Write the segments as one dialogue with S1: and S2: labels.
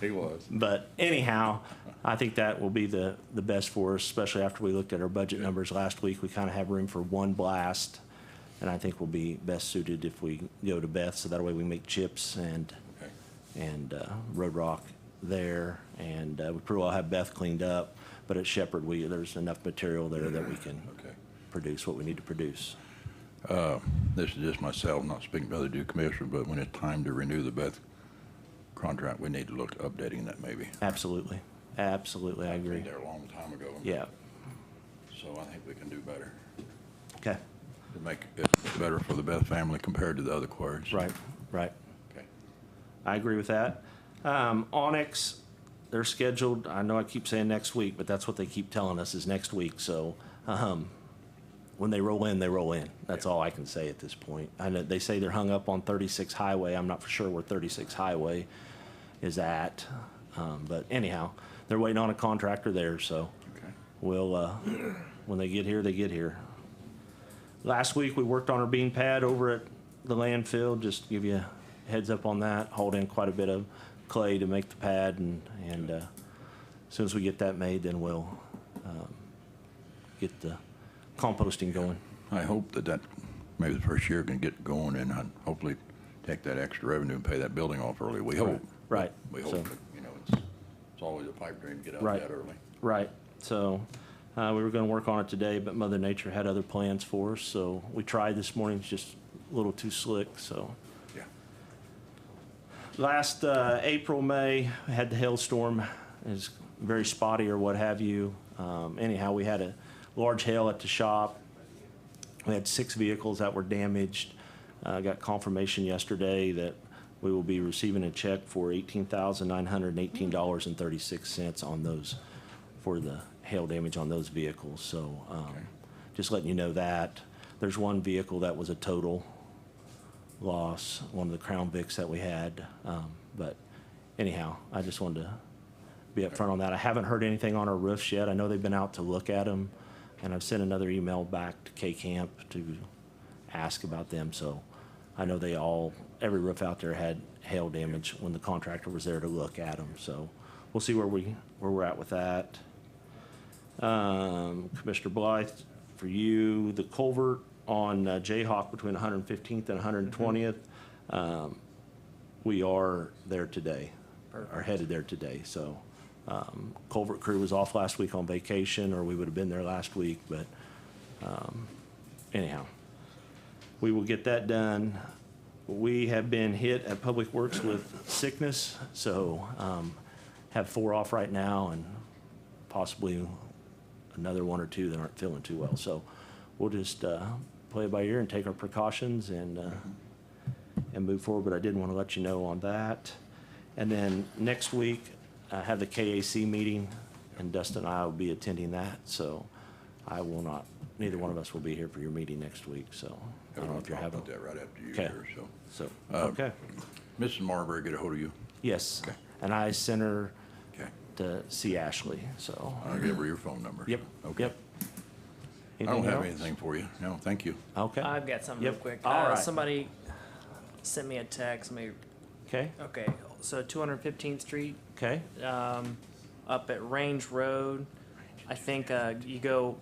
S1: He was.
S2: But anyhow, I think that will be the, the best for us, especially after we looked at our budget numbers last week. We kind of have room for one blast, and I think we'll be best suited if we go to Beth, so that way we make chips and,
S1: Okay.
S2: and uh, Road Rock there. And uh, we pretty well have Beth cleaned up, but at Shepherd, we, there's enough material there that we can
S1: Okay.
S2: produce what we need to produce.
S1: This is just myself, not speaking for other due commissioner, but when it's time to renew the Beth contract, we need to look at updating that maybe.
S2: Absolutely, absolutely, I agree.
S1: Been there a long time ago.
S2: Yeah,
S1: So I think we can do better.
S2: okay,
S1: To make it better for the Beth family compared to the other quarries.
S2: right, right.
S1: Okay.
S2: I agree with that. Um, Onyx, they're scheduled, I know I keep saying next week, but that's what they keep telling us is next week, so, um, when they roll in, they roll in. That's all I can say at this point. I know, they say they're hung up on thirty-six highway. I'm not for sure where thirty-six highway is at. Um, but anyhow, they're waiting on a contractor there, so
S1: Okay.
S2: we'll, uh, when they get here, they get here. Last week, we worked on our bean pad over at the landfill, just to give you a heads up on that. Hauled in quite a bit of clay to make the pad and, and, uh, as soon as we get that made, then we'll, um, get the composting going.
S1: I hope that that, maybe the first year can get going and I'd hopefully take that extra revenue and pay that building off early. We hope.
S2: Right,
S1: We
S2: so-
S1: hope, that, you know, it's, it's always a pipe dream to get out
S2: Right.
S1: that early.
S2: Right, so, uh, we were gonna work on it today, but Mother Nature had other plans for us, so we tried this morning, it's just a little too slick, so.
S1: Yeah.
S2: last uh, April, May, we had the hailstorm. It was very spotty or what have you. Um, anyhow, we had a large hail at the shop. We had six vehicles that were damaged. Uh, got confirmation yesterday that we will be receiving a check for eighteen thousand nine hundred and eighteen dollars and thirty-six cents on those, for the hail damage on those vehicles. So, um, just letting you know that. There's one vehicle that was a total loss, one of the Crown Vics that we had. Um, but anyhow, I just wanted to be upfront on that. I haven't heard anything on our roofs yet. I know they've been out to look at them, and I've sent another email back to K Camp to ask about them. So I know they all, every roof out there had hail damage when the contractor was there to look at them. So we'll see where we where we're at with that. Um, Commissioner Blythe, for you, the culvert on uh, Jayhawk between 115th and 120th, um, we are there today, are headed there today, so. um, Culvert crew was off last week on vacation, or we would have been there last week, but um, anyhow. We will get that done. We have been hit at Public Works with sickness, so um, have four off right now, and possibly another one or two that aren't feeling too well. So we'll just uh, play it by ear and take our precautions and, uh, and move forward. But I did want to let you know on that. And then next week, I have the KAC meeting, and Dustin and I will be attending that. So I will not, neither one of us will be here for your meeting next week, so I don't know if you're
S1: I'll
S2: having.
S1: put that right after you
S2: Okay.
S1: here, so.
S2: So, okay,
S1: Mrs. Marbury, get a hold of you.
S2: yes.
S1: Um, okay.
S2: And I sent her
S1: Okay.
S2: to see Ashley, so.
S1: I'll give her your phone number.
S2: Yep,
S1: Okay.
S2: yep.
S1: I don't
S2: Anything
S1: have
S2: else?
S1: anything for you. No, thank you.
S2: Okay,
S3: I've got something real
S2: Yep.
S3: quick.
S2: All
S3: Uh,
S2: right.
S3: Somebody sent me a text. Let me,
S2: okay,
S3: okay, so 215th Street
S2: okay,
S3: um, up at Range Road. I think uh, you go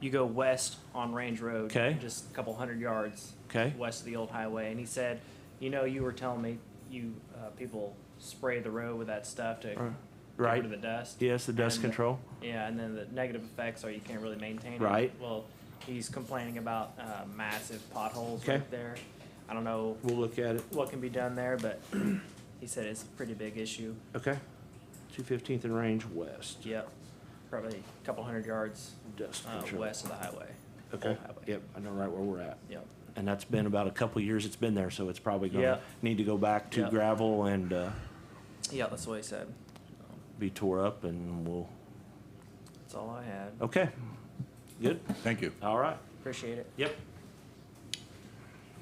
S3: you go west on Range Road,
S2: Okay.
S3: just a couple hundred yards
S2: Okay.
S3: west of the old highway. And he said, you know, you were telling me you uh, people spray the road with that stuff to get
S2: Uh, right.
S3: rid of the dust.
S2: Yes, the dust
S3: And- uh,
S2: control.
S3: Yeah, and then the negative effects are you can't really maintain it.
S2: Right.
S3: Well, he's complaining about uh, massive potholes
S2: Okay.
S3: right there. I don't know
S2: We'll look at it.
S3: what can be done there, but he said it's a pretty big issue.
S2: Okay. Two fifteenth and Range West,
S3: Yep, probably a couple hundred yards
S2: dust
S3: uh,
S2: control.
S3: west of the highway.
S2: Okay,
S3: Old highway.
S2: yep, I know right where we're at.
S3: Yep.
S2: And that's been about a couple of years it's been there, so it's probably gonna
S3: Yeah.
S2: need to go back to
S3: Yeah.
S2: gravel and, uh,
S3: Yeah, that's what he said.
S2: be tore up and we'll,
S3: That's all I had.
S2: okay. Good,
S1: Thank you.
S2: all right,
S3: Appreciate it.
S2: yep.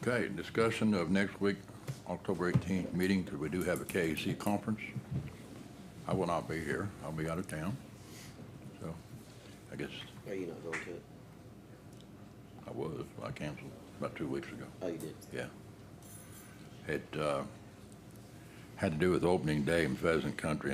S1: Okay, discussion of next week, October 18th meeting, because we do have a KAC conference. I will not be here. I'll be out of town. So I guess
S4: Are you Oh, not going to it?
S1: I was, I canceled about two weeks ago.
S4: Oh, you did.
S1: Yeah. It uh, had to do with opening day in Pheasant Country,